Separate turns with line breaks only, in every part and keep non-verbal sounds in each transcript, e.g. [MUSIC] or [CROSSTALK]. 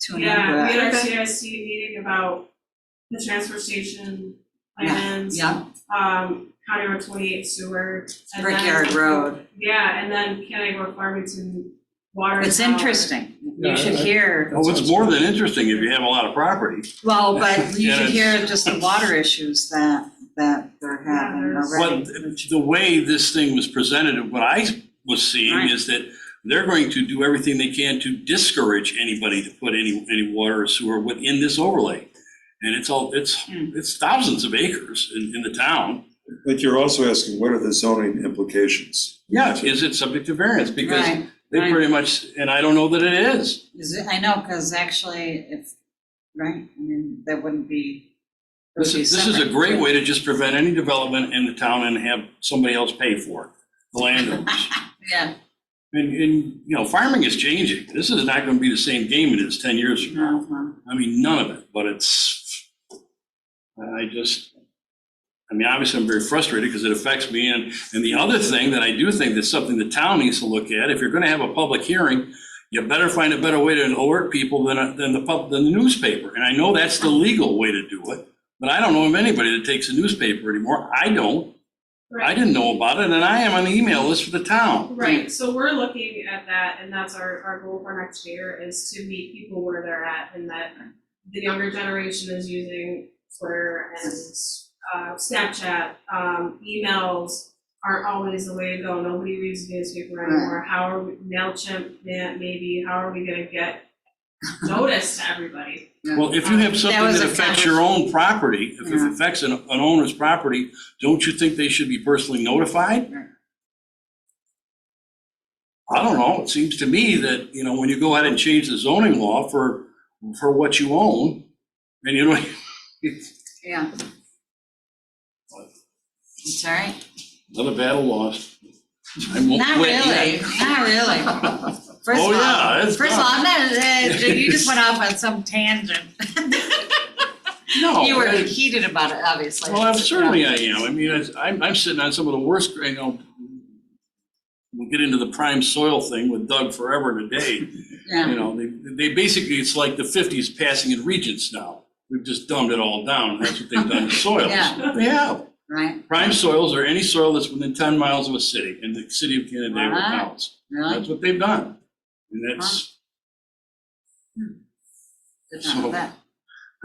to remember
Yeah, we had our
that.
CIC meeting about the transfer station
Yeah,
plans,
Yeah,
um, County Road twenty-eight sewer. and then-
Brickyard Road,
Yeah, and then County Road Farmington water.
it's
tower.
interesting,
Yeah,
you should
I-
hear,
Well, it's more than interesting if you have a lot of property.
well,
[LAUGHS]
but you
Yeah,
should
it's-
hear just the water issues that, that they're having
there's-
already.
But the way this thing was presented, and what I was seeing
Right.
is that they're going to do everything they can to discourage anybody to put any, any water or sewer within this overlay. And it's all, it's,
Hmm.
it's thousands of acres in, in the town.
But you're also asking, what are the zoning implications?
Yeah, is it subject to variance? Because
Right,
they
right.
pretty much, and I don't know that it is.
Is it, I know, because actually, if, right, I mean, that wouldn't be, it would
This
be
is, this is a
separate.
great way to just prevent any development in the town and have somebody else pay for it, the landowners.
[LAUGHS] Yeah,
And, and, you know, farming is changing. This is not gonna be the same game it is ten years from now.
no, no.
I mean, none of it, but it's, I just, I mean, obviously, I'm very frustrated because it affects me. And, and the other thing that I do think that's something the town needs to look at, if you're gonna have a public hearing, you better find a better way to alert people than, a- than the pub, than the newspaper. And I know that's the legal way to do it, but I don't know of anybody that takes a newspaper anymore. I don't. I
Right,
didn't know about it, and I am on the email list for the town.
right, so we're looking at that, and that's our, our goal for next year, is to meet people where they're at, and that the younger generation is using Twitter and, uh, Snapchat, um, emails aren't always the way to go, nobody reads the newspaper anymore, how are, we MailChimp, ma- maybe, how are we gonna get notice to everybody?
Well, if you have something
Um, was
that
a
affects your own property, if it
Yeah.
affects an an owner's property, don't you think they should be personally notified?
Right.
I don't know, it seems to me that, you know, when you go out and change the zoning law for, for what you own, and you know, [LAUGHS]
yeah. It's all right.
another battle lost. I won't
Not
quit yet.
really, not really. First
Oh,
of all-
yeah, it's
First of all,
not.
I'm not, uh,
[LAUGHS]
you just went off on some tangent. [LAUGHS]
No,
You were
I-
heated about it, obviously.
Oh, Well, I'm certainly I am. I mean, it's- I'm, I'm sitting on some of the worst, you know, we'll get into the prime soil thing with Doug forever and a day.
Yeah,
You know, they, they basically, it's like the fifties passing in regents now. We've just dumbed it all down. That's what they've
[LAUGHS]
done to soils.
Yeah.
They have.
right,
Prime soils are any soil that's within ten miles of a city and the city of Canandaigua
Wow.
counts.
really?
That's what they've done. And that's,
Did not know
so-
that.
[LAUGHS]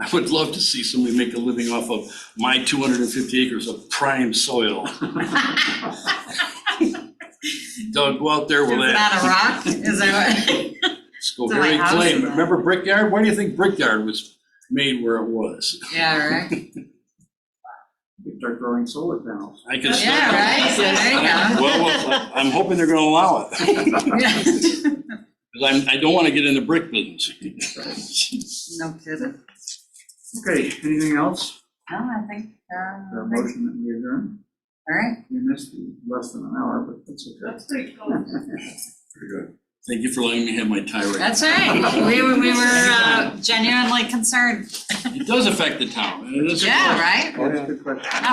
I would love to see somebody make a living off of my two hundred and fifty acres of prime soil. [LAUGHS]
[LAUGHS]
Doug, go out there
Is
with that.
that a rock? Is
[LAUGHS]
that what?
Scoberry
house
clay.
is that?
Remember Brickyard? Why do you think Brickyard was made where it was?
Yeah, right.
You start growing solar panels.
I can.
Yeah,
start-
right, so there you go.
Well, well, I'm hoping they're gonna allow it, [LAUGHS] because I'm, I don't wanna get in the brick [LAUGHS]
[LAUGHS]
business.
No kidding.
Okay, anything else?
No, I think, uh,
The motion that we adjourn?
all right.
We missed less than an hour, but that's okay.
That's pretty cool.
Pretty good.
Thank you for letting me have my tirade.
That's all right. We were, we were uh, genuinely concerned.
It does affect the town, and it is.
Yeah, right?
That's a good question.